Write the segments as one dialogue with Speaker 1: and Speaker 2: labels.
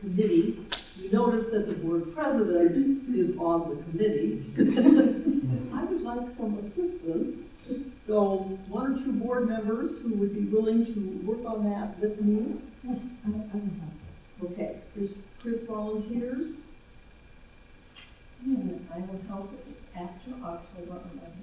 Speaker 1: committee, you notice that the board president is on the committee.
Speaker 2: Mm-hmm.
Speaker 1: I would like some assistance, so one or two board members who would be willing to work on that with me.
Speaker 2: Yes, I, I would help.
Speaker 1: Okay, Chris, Chris volunteers.
Speaker 2: Yeah, and I will help if it's after October eleventh.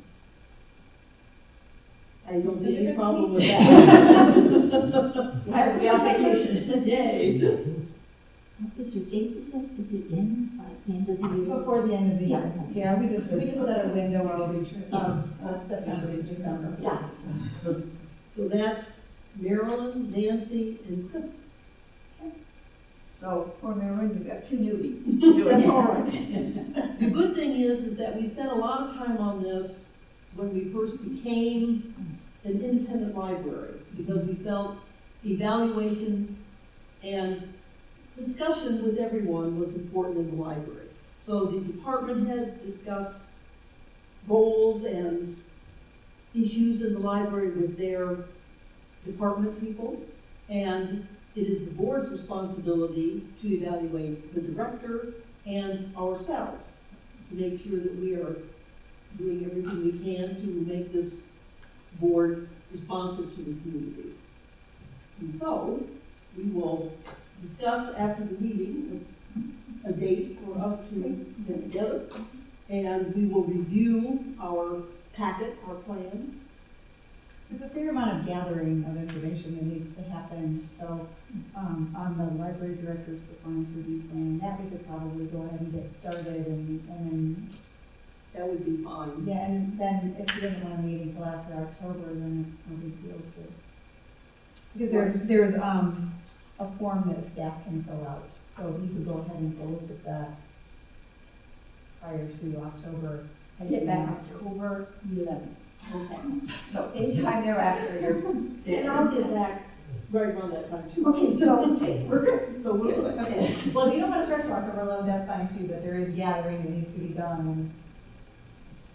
Speaker 1: I don't see
Speaker 2: Consider
Speaker 1: any
Speaker 2: it
Speaker 1: problem with
Speaker 2: me.
Speaker 1: that.
Speaker 2: I have to be on vacation.
Speaker 1: Yay.
Speaker 3: What is your date, this has to be in by the end of the year?
Speaker 2: Before the end of the year.
Speaker 3: Yeah.
Speaker 2: Yeah, we just, we just set a window of, um, uh, September, to December.
Speaker 3: Yeah.
Speaker 1: So that's Marilyn, Nancy, and Chris.
Speaker 2: So, poor Marilyn, you've got two newbies.
Speaker 1: That's all right. The good thing is, is that we spent a lot of time on this when we first became an independent library, because we felt evaluation and discussion with everyone was important in the library. So the department heads discussed goals and issues in the library with their department people, and it is the board's responsibility to evaluate the director and ourselves to make sure that we are doing everything we can to make this board responsive to the community. And so, we will discuss after the meeting a a date for us to get together, and we will review our packet, our plan.
Speaker 4: There's a fair amount of gathering of information that needs to happen, so, um, on the library director's performance review plan, that we could probably go ahead and get started and, and
Speaker 1: That would be fine.
Speaker 4: then, yeah, and then if he doesn't wanna meet until after October, then it's no big deal too. Because there's, there's, um, a form that staff can fill out, so we could go ahead and go with that prior to October.
Speaker 2: I get back October eleventh.
Speaker 1: Okay.
Speaker 2: So anytime thereafter, you're.
Speaker 1: And I'll get back right around that time too.
Speaker 2: Okay, so, okay, we're good.
Speaker 1: So we'll.
Speaker 4: Okay, well, if you don't wanna start till October eleventh, that's fine too, but there is gathering that needs to be done.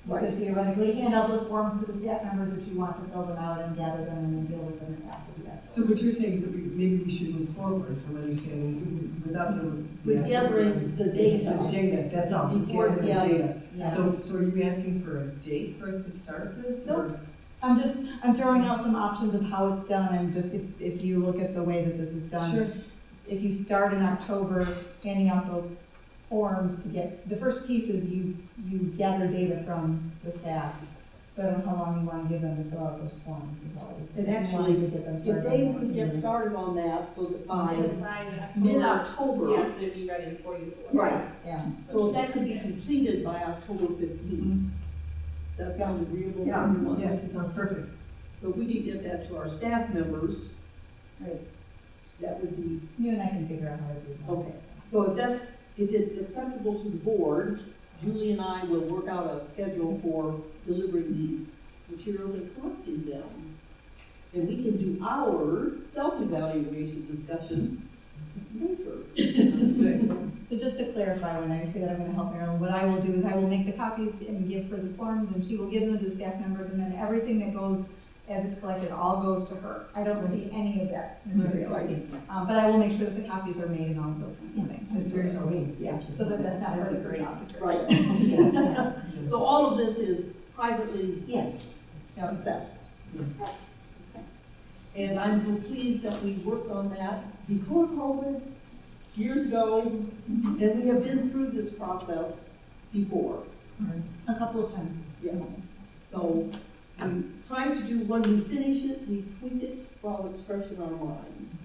Speaker 4: You
Speaker 2: Right.
Speaker 4: could theoretically hand out those forms to the staff members if you want to fill them out and gather them and then deal with them after that.
Speaker 5: So what you're saying is that we, maybe we should move forward from understanding without the.
Speaker 1: We're gathering the
Speaker 5: The
Speaker 1: data.
Speaker 5: data, that's all, just
Speaker 1: Before,
Speaker 5: gathering the
Speaker 1: yeah.
Speaker 5: data.
Speaker 4: Yeah.
Speaker 5: So, so are you asking for a date for us to start this? or-
Speaker 4: I'm just, I'm throwing out some options of how it's done, and just if, if you look at the way that this is done.
Speaker 5: Sure.
Speaker 4: If you start in October, handing out those forms to get, the first piece is you, you gather data from the staff. So I don't know how long you wanna give them to fill out those forms, is all this.
Speaker 1: And actually, If they would get started on that, so that by mid-October.
Speaker 6: Yes, it'd be ready for you.
Speaker 1: Right.
Speaker 4: Yeah.
Speaker 1: So that could be completed by October fifteenth. That sounds agreeable to
Speaker 5: Mm-hmm. Yeah,
Speaker 1: everyone?
Speaker 5: yes, it sounds perfect.
Speaker 1: So if we could get that to our staff members.
Speaker 4: Right.
Speaker 1: That would be,
Speaker 4: You and I can figure out how to do that.
Speaker 1: Okay. so if that's, if it's acceptable to the board, Julie and I will work out a schedule for delivering these materials and collecting them. And we can do our self-evaluation discussion later.
Speaker 5: That's good.
Speaker 4: So just to clarify, when I say that I'm gonna help Marilyn, what I will do is I will make the copies and give her the forms, and she will give them to the staff members, and then everything that goes, as it's collected, all goes to her. I don't see any of that material. Um, but I will make sure that the copies are made and all of those kinds of things.
Speaker 5: That's very helpful.
Speaker 4: Yeah, so that that's not part of her job description.
Speaker 1: Right.
Speaker 3: Yes, yeah.
Speaker 1: So all of this is privately
Speaker 3: Yes.
Speaker 4: So,
Speaker 1: assessed. And I'm so pleased that we worked on that before COVID, years ago, and we have been through this process before,
Speaker 4: a couple of times.
Speaker 1: yes. So we try to do, when we finish it, we tweak it while it's fresh in our minds.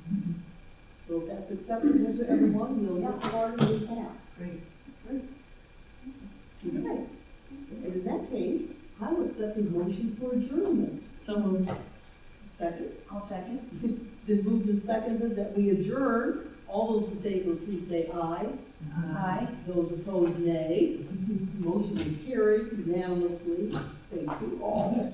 Speaker 1: So if that's acceptable to everyone, we'll get started with that.
Speaker 5: Great.
Speaker 1: Right. And in that case, I would accept the motion for adjournment.
Speaker 5: So moved.
Speaker 1: Second?
Speaker 2: I'll second.
Speaker 1: It's been moved and seconded that we adjourn. All those in favor, please say aye.
Speaker 5: Uh,
Speaker 2: Aye.
Speaker 1: Those opposed, nay. Motion is carried unanimously. Thank you all.